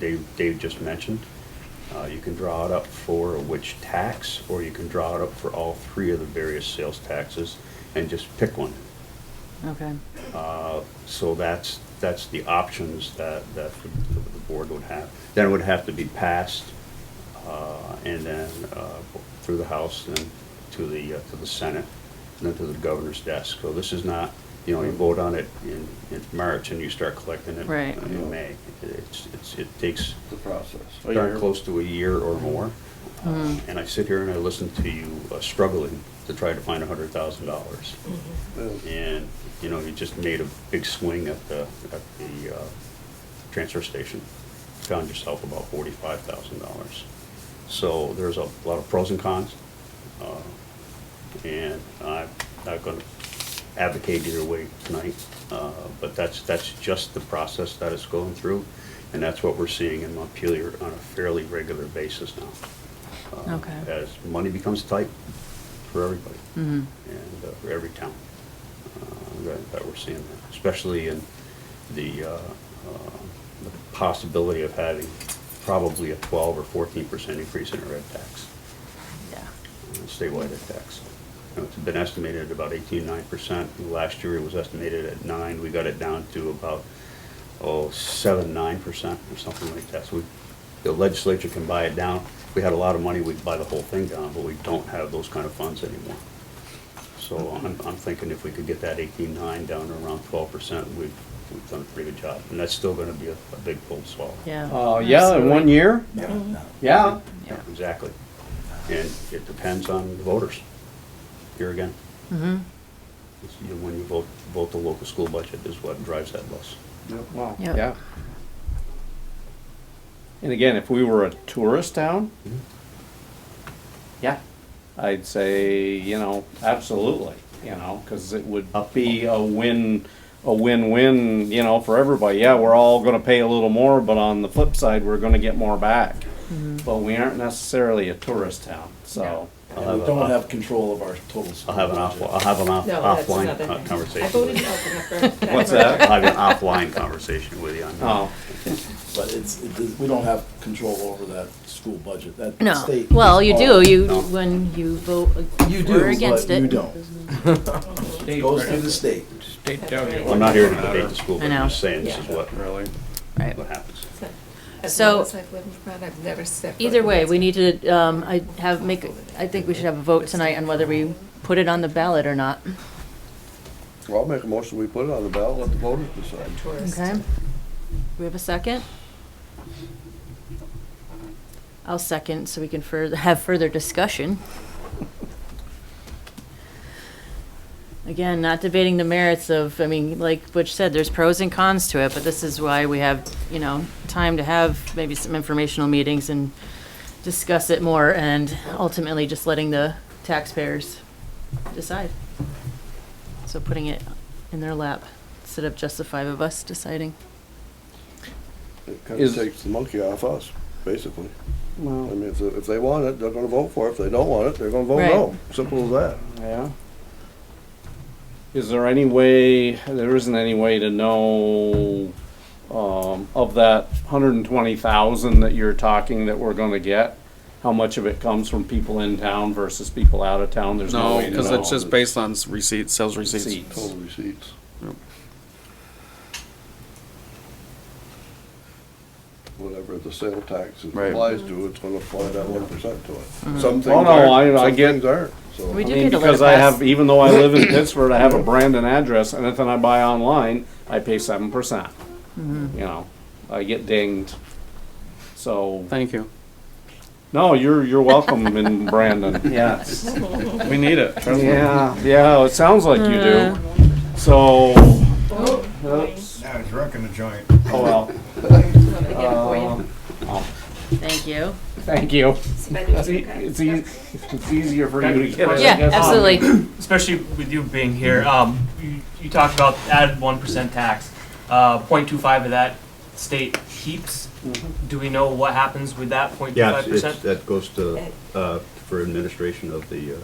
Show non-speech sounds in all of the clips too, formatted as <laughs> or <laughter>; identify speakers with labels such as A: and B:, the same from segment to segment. A: Dave, Dave just mentioned. Uh, you can draw it up for which tax, or you can draw it up for all three of the various sales taxes and just pick one.
B: Okay,
A: So that's, that's the options that, that the the board would have. Then it would have to be passed, uh, and then, uh, through the House and to the, uh, to the Senate, and then to the governor's desk. So this is not, you know, you vote on it in, in March and you start collecting it
B: Right.
A: in May. It's, it's, it takes
C: the process.
D: Oh,
E: A
A: darn
E: year.
A: Oh, close to a year or more. Uh, And I sit here and I listen to you uh, struggling to try to find a hundred thousand dollars and, you know, he just made a big swing at the, at the uh, transfer station. Found yourself about forty-five thousand dollars. So there's a lot of pros and cons. uh, And I'm not gonna advocate either way tonight, uh, but that's, that's just the process that it's going through. And that's what we're seeing in Montpelier on a fairly regular basis now. uh,
B: Okay.
A: As money becomes tight for everybody
B: mhm,
A: and uh, for every town uh, that that we're seeing, that, especially in the, uh, uh, the possibility of having probably a 12 or 14 percent increase in our red tax,
B: yeah,
A: uh, statewide red tax. You know, It's been estimated at about 18, 9 percent. Last year, it was estimated at 9. We got it down to about, oh, 7, 9 percent or something like that. So we- the legislature can buy it down. If we had a lot of money, we'd buy the whole thing down, but we don't have those kind of funds anymore. So I'm, I'm thinking if we could get that eighteen-nine down to around twelve percent, we've, we've done a pretty good job. And that's still gonna be a, a big pull swallow.
B: yeah.
E: Uh, yeah, in one
B: absolutely.
E: year, yeah.
B: Yeah.
A: Exactly. And it depends on the voters. Here again,
B: Mhm,
A: it's, you know, when you vote, vote the local school budget is what drives that bus.
E: Wow,
B: Yep.
E: yeah. And again, if we were a tourist town,
A: Mhm.
E: yeah, I'd say, you know, absolutely, you know, because it would be a win, a win-win, you know, for everybody. Yeah, we're all gonna pay a little more, but on the flip side, we're gonna get more back.
B: mhm.
E: But we aren't necessarily a tourist town, so.
A: I'll
D: And we
A: have a-
D: don't have control of our total.
A: I'll have an off, I'll have an off,
F: No, that's
A: offline
F: another
A: co-
F: thing.
A: conversation.
F: I voted
A: with you.
F: no for my first.
E: What's that?
A: I'll <laughs> have an offline conversation with you on that.
E: Oh,
D: But it's, it is- we don't have control over that school budget, that
B: No,
D: state.
B: well, you do, you,
A: No.
B: when you vote
D: You
B: for or
D: do,
B: against
D: but
B: it.
D: you don't. It Goes through the state.
F: That's right.
A: I'm not here to debate the school,
B: I
A: but I'm
B: know.
A: just saying this is
F: Yeah.
A: what,
E: really?
B: Right.
A: what happens.
F: As
B: So-
F: long as I've lived abroad, I've never set. foot
B: Either
F: in
B: way,
F: this
B: we need to, um, I have, make, I think we should have a vote tonight on whether we put it on the ballot or not.
C: Well, I'll make a motion, we put it on the ballot, let the voters decide.
F: tourist.
B: Okay. We have a second? I'll second, so we can further, have further discussion. Again, not debating the merits of, I mean, like Butch said, there's pros and cons to it, but this is why we have, you know, time to have maybe some informational meetings and discuss it more, and ultimately just letting the taxpayers decide. So putting it in their lap instead of just the five of us deciding.
C: It kind of
E: Is-
C: takes the monkey off us, basically. I
E: Well,
C: mean, if, if they want it, they're gonna vote for it. If they don't want it, they're gonna vote
B: Right.
C: no. Simple as that.
E: Yeah. Is there any way, there isn't any way to know, um, of that hundred and twenty thousand that you're talking that we're gonna get? How much of it comes from people in town versus people out of town? There's no
G: No,
E: way to
G: because it's
E: know.
G: just based on s- receipts, sales receipts.
E: Receipts.
C: Total receipts.
G: Yep.
C: Whatever the sale tax
G: Right.
C: applies to, it's gonna apply that one percent to it. Some things
E: Oh, no,
C: aren't,
E: I- I
C: some
E: get-
C: things aren't, so.
B: Mm-hmm. We
E: I
B: do
E: mean,
B: get a
E: because
B: letter
E: I
B: pass.
E: have, even though I live in Pittsford, I have a Brandon address, and anything I buy online, I pay seven percent. You know, I get dinged. So,
G: Thank you.
E: no, you're, you're welcome in
G: <laughs>
E: Brandon, yes.
G: We need it. trust me.
E: Yeah, yeah, it sounds like you do. So, oops,
H: Now it's wrecking the joint. <laughs>
E: oh well,
F: Let me get it for you.
B: Thank you.
E: thank you.
F: Spending
E: It's, e-
F: time.
E: it's, eas- it's easier for you to get it. I
B: Yeah,
E: guess.
B: absolutely.
I: especially with you being
A: Mm-hmm.
I: here, um, you, you talked about added one percent tax. Uh, 0.25 of that state keeps. Do we know what happens with that 0.25
A: Yeah, it's-
I: percent?
A: it's, that goes to, uh, for administration of the, uh,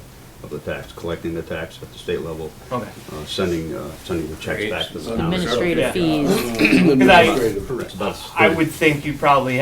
A: of the tax, collecting the tax at the state level,
I: okay.
A: uh, sending, uh, sending the checks back to the town.
B: Administrative
I: Yeah.
B: fees.
I: Because I,
A: It's about
I: I would think you probably